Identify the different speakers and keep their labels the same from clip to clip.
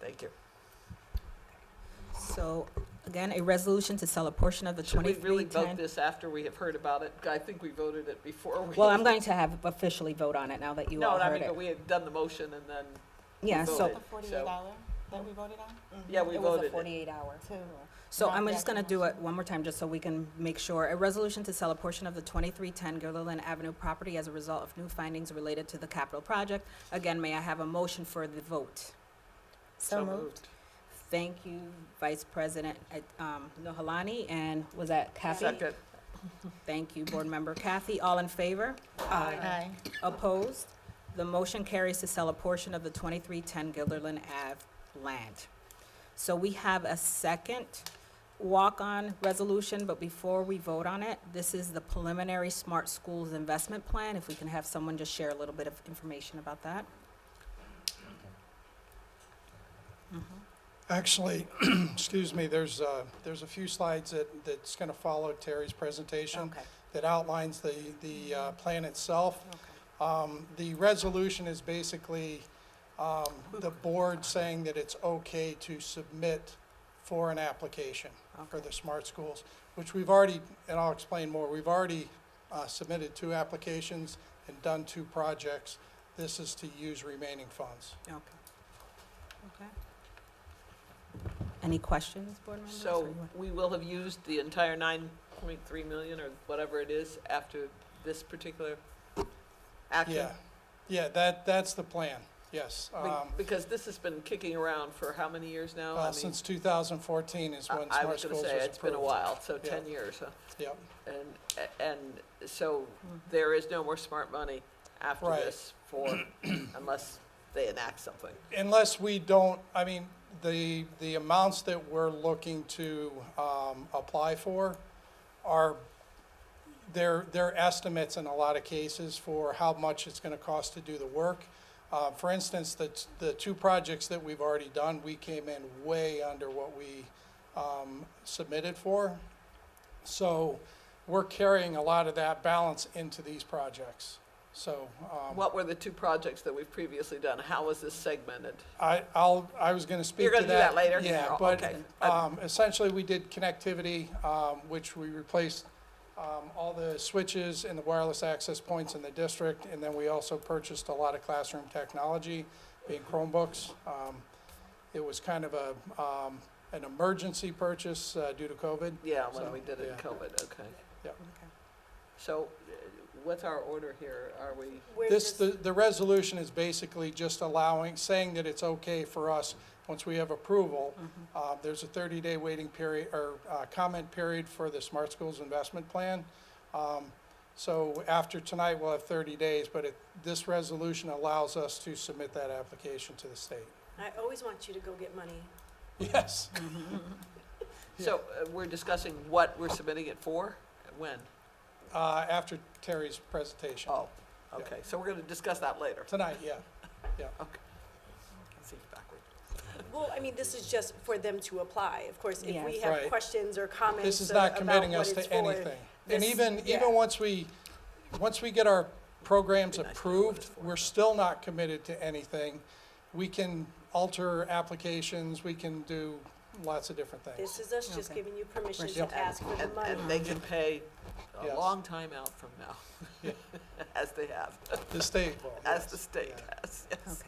Speaker 1: Thank you.
Speaker 2: So again, a resolution to sell a portion of the
Speaker 1: Should we really
Speaker 2: twenty-three
Speaker 1: vote
Speaker 2: ten.
Speaker 1: this after we have heard about it? I think we voted it before we.
Speaker 2: Well, I'm going to have officially vote on it now that you
Speaker 1: No,
Speaker 2: all
Speaker 1: and I
Speaker 2: heard
Speaker 1: mean, but
Speaker 2: it.
Speaker 1: we had done the motion and then,
Speaker 2: Yeah,
Speaker 1: voted.
Speaker 2: so
Speaker 3: The forty-eight
Speaker 1: So-
Speaker 3: dollar that we voted on?
Speaker 4: Mm-hmm.
Speaker 1: yeah, we
Speaker 2: it was a
Speaker 1: voted it.
Speaker 2: forty-eight hour.
Speaker 3: To.
Speaker 2: So
Speaker 3: Not
Speaker 2: I'm
Speaker 3: the
Speaker 2: just gonna
Speaker 3: actual
Speaker 2: do it
Speaker 3: motion.
Speaker 2: one more time, just so we can make sure. A resolution to sell a portion of the twenty-three ten Gilliland Avenue property as a result of new findings related to the capital project. Again, may I have a motion for the vote?
Speaker 3: So moved.
Speaker 2: Thank you, Vice President, uh, um, Nohalani, and was that Kathy?
Speaker 1: Second.
Speaker 2: Thank you, Board Member Kathy. All in favor?
Speaker 3: Aye.
Speaker 2: Opposed? The motion carries to sell a portion of the 2310 Gilderland Ave land. So we have a second walk-on resolution, but before we vote on it, this is the preliminary Smart Schools Investment Plan. If we can have someone just share a little bit of information about that. Mm-hmm.
Speaker 4: Actually, excuse me, there's, uh, there's a few slides that, that's going to follow Terry's presentation
Speaker 2: Okay,
Speaker 4: that outlines the, the uh, plan itself.
Speaker 2: okay.
Speaker 4: Um, The resolution is basically um, the board saying that it's okay to submit for an application for the smart schools, which we've already, and I'll explain more, we've already uh, submitted two applications and done two projects. This is to use remaining funds.
Speaker 2: Okay. Okay. Any questions, board members? or
Speaker 1: So
Speaker 2: you want-
Speaker 1: we will have used the entire nine point three million or whatever it is after this particular action?
Speaker 4: Yeah, yeah, that, that's the plan, yes.
Speaker 1: Be-
Speaker 4: Um,
Speaker 1: Because this has been kicking around for how many years now? I
Speaker 4: uh,
Speaker 1: mean,
Speaker 4: Since 2014 is
Speaker 1: I-
Speaker 4: when
Speaker 1: I was
Speaker 4: Smart
Speaker 1: gonna
Speaker 4: Schools was
Speaker 1: say,
Speaker 4: approved.
Speaker 1: it's been a while, so
Speaker 4: Yeah.
Speaker 1: ten years, huh?
Speaker 4: Yep,
Speaker 1: And, and so there is no more smart money after
Speaker 4: Mm-hmm. Right.
Speaker 1: this for, unless they enact something.
Speaker 4: unless we don't, I mean, the, the amounts that we're looking to um, apply for are, they're, they're estimates in a lot of cases for how much it's going to cost to do the work. Uh, For instance, the, t- the two projects that we've already done, we came in way under what we um, submitted for. So we're carrying a lot of that balance into these projects. So um,
Speaker 1: What were the two projects that we've previously done? How was this segmented?
Speaker 4: I, I'll, I was gonna speak to
Speaker 1: You're
Speaker 4: that.
Speaker 1: gonna do that later?
Speaker 4: Yeah,
Speaker 1: Oh, okay.
Speaker 4: but, um, essentially, we did connectivity, um, which we replaced, um, all the switches and the wireless access points in the district, and then we also purchased a lot of classroom technology, being Chromebooks. Um, it was kind of a, um, an emergency purchase, uh, due to COVID.
Speaker 1: Yeah, when
Speaker 4: So,
Speaker 1: we did it in
Speaker 4: yeah.
Speaker 1: COVID, okay.
Speaker 2: Okay.
Speaker 1: So uh, what's our order here? Are we,
Speaker 4: This, the, the resolution is basically just allowing, saying that it's okay for us, once we have approval,
Speaker 2: Mm-hmm.
Speaker 4: uh, there's a 30-day waiting period, or uh, comment period for the Smart Schools Investment Plan. Um, So after tonight, we'll have 30 days, but it, this resolution allows us to submit that application to the state.
Speaker 5: I always want you to go get money.
Speaker 4: Yes,
Speaker 1: so uh, we're discussing what we're submitting it for? When?
Speaker 4: uh, after Terry's presentation.
Speaker 1: Oh, okay, so we're gonna discuss that later.
Speaker 4: Tonight, yeah.
Speaker 1: Okay. Seems backward.
Speaker 5: Well, I mean, this is just for them to apply. Of course, if we
Speaker 2: Yes.
Speaker 5: have
Speaker 4: Right.
Speaker 5: questions or comments.
Speaker 4: This is
Speaker 5: uh,
Speaker 4: not
Speaker 5: about
Speaker 4: committing
Speaker 5: what
Speaker 4: us
Speaker 5: it's
Speaker 4: to
Speaker 5: for,
Speaker 4: anything. And
Speaker 5: this-
Speaker 4: even,
Speaker 5: yeah.
Speaker 4: even once we, once we get our programs
Speaker 1: Be nice to know what
Speaker 4: approved,
Speaker 1: it's for.
Speaker 4: we're still not committed to anything. We can alter applications, we can do lots of different things.
Speaker 5: This is us just
Speaker 2: Okay.
Speaker 5: giving you permission
Speaker 4: Yep.
Speaker 5: to ask for the
Speaker 1: And,
Speaker 5: money.
Speaker 1: and they can pay a
Speaker 4: Yes.
Speaker 1: long time out from now,
Speaker 4: Yeah.
Speaker 1: as they have,
Speaker 4: The state will.
Speaker 1: as
Speaker 4: yes.
Speaker 1: the state
Speaker 4: Yeah.
Speaker 1: has, yes.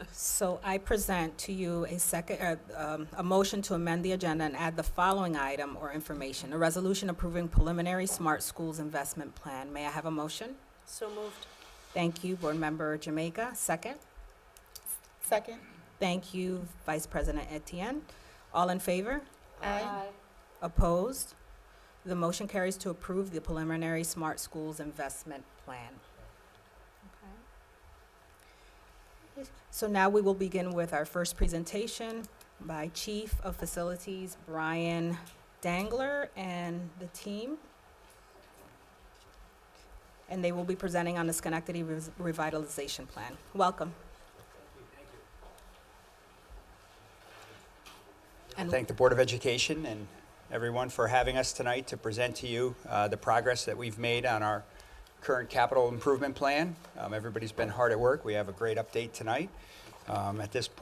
Speaker 2: Okay. So I present to you a second, uh, um, a motion to amend the agenda and add the following item or information. A resolution approving preliminary Smart Schools Investment Plan. May I have a motion?
Speaker 5: So moved.
Speaker 2: Thank you, Board Member Jamaica. Second?
Speaker 3: Second?
Speaker 2: Thank you, Vice President Etienne. All in favor?
Speaker 3: Aye.
Speaker 2: Opposed? The motion carries to approve the preliminary Smart Schools Investment Plan. So now we will begin with our first presentation by Chief of Facilities Brian Dangler and the team. And they will be presenting on the Schenectady Revis- Revitalization Plan. Welcome. And-
Speaker 6: thank the Board of Education and everyone for having us tonight to present to you uh, the progress that we've made on our current capital improvement plan. Um, Everybody's been hard at work. We have a great update tonight. Um, At this point.